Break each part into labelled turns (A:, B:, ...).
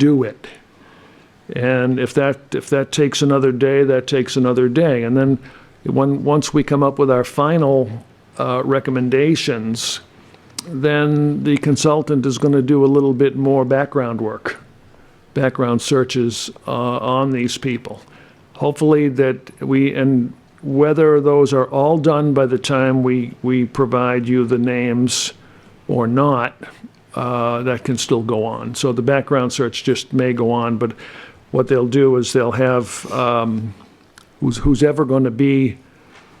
A: do it. And if that, if that takes another day, that takes another day. And then when, once we come up with our final uh, recommendations, then the consultant is going to do a little bit more background work, background searches uh, on these people. Hopefully that we, and whether those are all done by the time we, we provide you the names or not, uh, that can still go on. So the background search just may go on, but what they'll do is they'll have, um, who's, who's ever going to be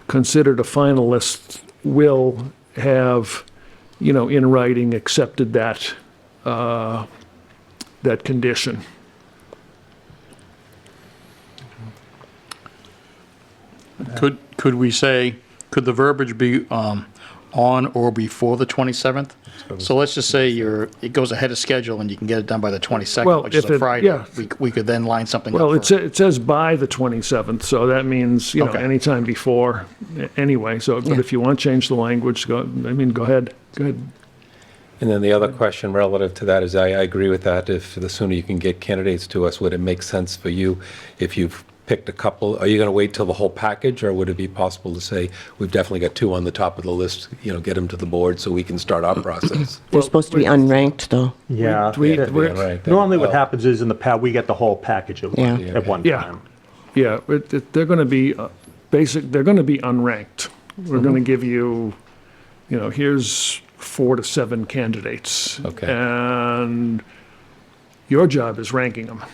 A: considered a finalist will have, you know, in writing accepted that, uh, that condition.
B: Could, could we say, could the verbiage be um, on or before the 27th? So let's just say you're, it goes ahead of schedule and you can get it done by the
A: Well,
B: 22nd, which is
A: if it-
B: a Friday.
A: yeah.
B: We c- We could then line something up.
A: Well, it,
B: for-
A: sa- it says by the 27th, so that means, you know,
B: Okay.
A: anytime before, a- anyway, so, but
B: Yeah.
A: if you want to change the language, go, I mean, go ahead, go ahead.
C: And then the other question relative to that is, I, I agree with that. If the sooner you can get candidates to us, would it make sense for you if you've picked a couple? Are you going to wait till the whole package, or would it be possible to say, we've definitely got two on the top of the list, you know, get them to the board so we can start our process?
D: They're supposed to be unranked, though.
E: Yeah.
A: We-
E: that-
A: we're-
C: Yeah, right.
E: Normally what
C: Oh.
E: happens is in the past, we get the whole package at one,
D: Yeah.
E: at one
A: Yeah.
E: time.
A: Yeah, it, it, they're going to be uh, basic. They're going to be unranked. We're going to give you, you know, here's four to seven candidates,
C: Okay.
A: and your job is ranking them.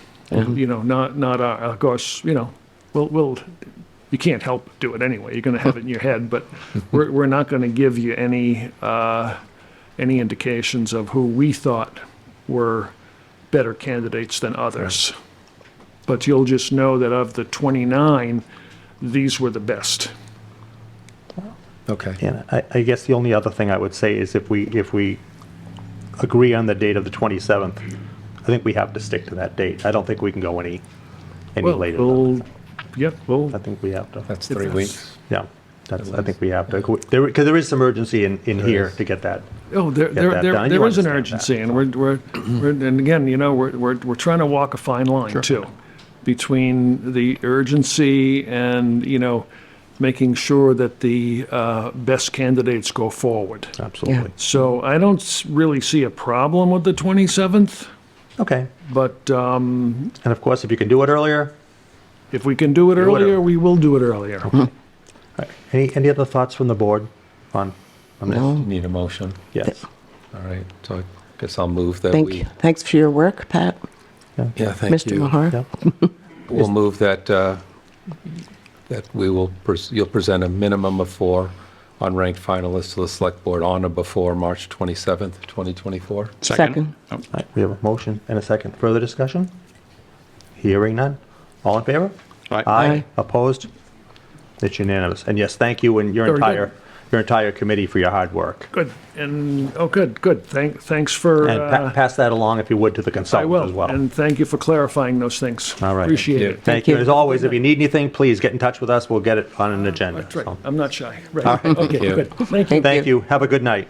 A: You know, not not our, of course. You know, we'll we'll. You can't help do it anyway. You're going to have it in your head, but we're we're not going to give you any uh, any indications of who we thought were better candidates than others but you'll just know that of the 29, these were the best.
C: Okay.
E: And I, I guess the only other thing I would say is if we, if we agree on the date of the 27th, I think we have to stick to that date. I don't think we can go any, any
A: Well,
E: later. than
A: we'll, yep, we'll,
E: that. I think we have to,
C: That's three weeks.
E: yeah, that's, I think we have to, there, because there is some urgency in, in here to get that.
A: oh, there, there,
E: that
A: there
E: done. You
A: there is an
E: understand that.
A: urgency, and we're, we're, we're- and again, you know, we're, we're, we're trying to walk a fine line too, between the urgency and, you know, making sure that the uh, best candidates go forward.
E: Absolutely.
A: So I don't s- really see a problem with the 27th,
E: Okay.
A: but um,
E: And of course, if you can do it earlier,
A: if we can do it
E: it
A: earlier,
E: early.
A: we will do it earlier.
E: any, any other thoughts from the board on, on this?
D: No.
C: Need a motion.
E: Yes.
C: All right. So I guess I'll move that
D: Thank
C: we.
D: you. Thanks for your work, Pat,
C: Yeah, thank
D: Mr.
C: you.
D: Mahar.
E: Yeah.
C: We'll move that, uh, that we will, pres- you'll present a minimum of four unranked finalists to the Select Board on or before March 27th, 2024.
D: Second.
B: Oh,
E: All right, we have a motion and a second. Further discussion? Hearing none. All in favor?
B: Aye.
D: Aye.
E: Opposed? It's unanimous. And yes, thank you and your
A: Very good.
E: entire, your entire committee for your hard work.
A: Good, and, oh, good, good. Thank, thanks for,
E: And pa-
A: uh,
E: pass that along if you would to the
A: I
E: consultant as
A: will,
E: well.
A: and thank you for clarifying those things.
E: All right.
A: Appreciate
C: Thank
A: it.
E: Thank
D: Thank
E: you.
D: you.
E: As always, if you need anything, please get in touch with us. We'll get it on an agenda.
A: That's right,
E: So,
A: I'm not shy. Right, okay,
C: you.
A: good. Thank you.
E: Thank you. Have a good night.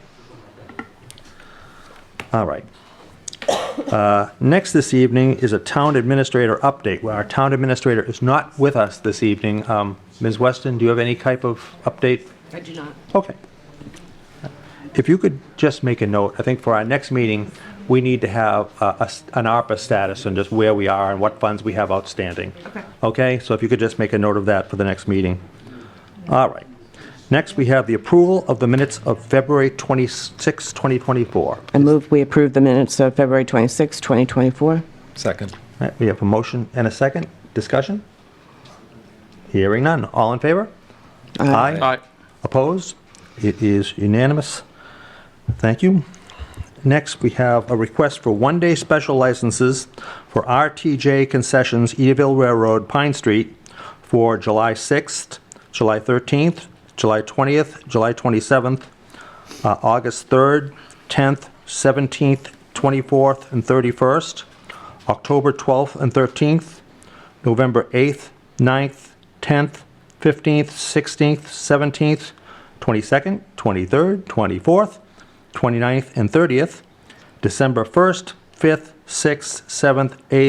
E: All right. Uh, Next this evening is a town administrator update. Well, Our town administrator is not with us this evening. Um, Ms. Weston, do you have any type of update?
D: I do not.
E: Okay. If you could just make a note, I think for our next meeting, we need to have uh, a s- an ARPA status and just where we are and what funds we have outstanding. Okay. Okay, so if you could just make a note of that for the next meeting. All right. Next, we have the approval of the minutes of February 26, 2024.
D: I move we approve the minutes of February 26, 2024.
C: Second.
E: All right, We have a motion and a second. Discussion? Hearing none. All in favor? Aye.
B: Aye.
E: Opposed? It is unanimous. Thank you. Next, we have a request for one-day special licenses for RTJ Concessions, Edaville Railroad, Pine Street, for July 6th, July 13th, July 20th, July 27th, uh, August 3rd, 10th, 17th, 24th, and 31st, October 12th and 13th, November 8th, 9th, 10th, 15th, 16th, 17th, 22nd, 23rd, 24th, 29th, and 30th, December 1st, 5th, 6th, 7th, 8th,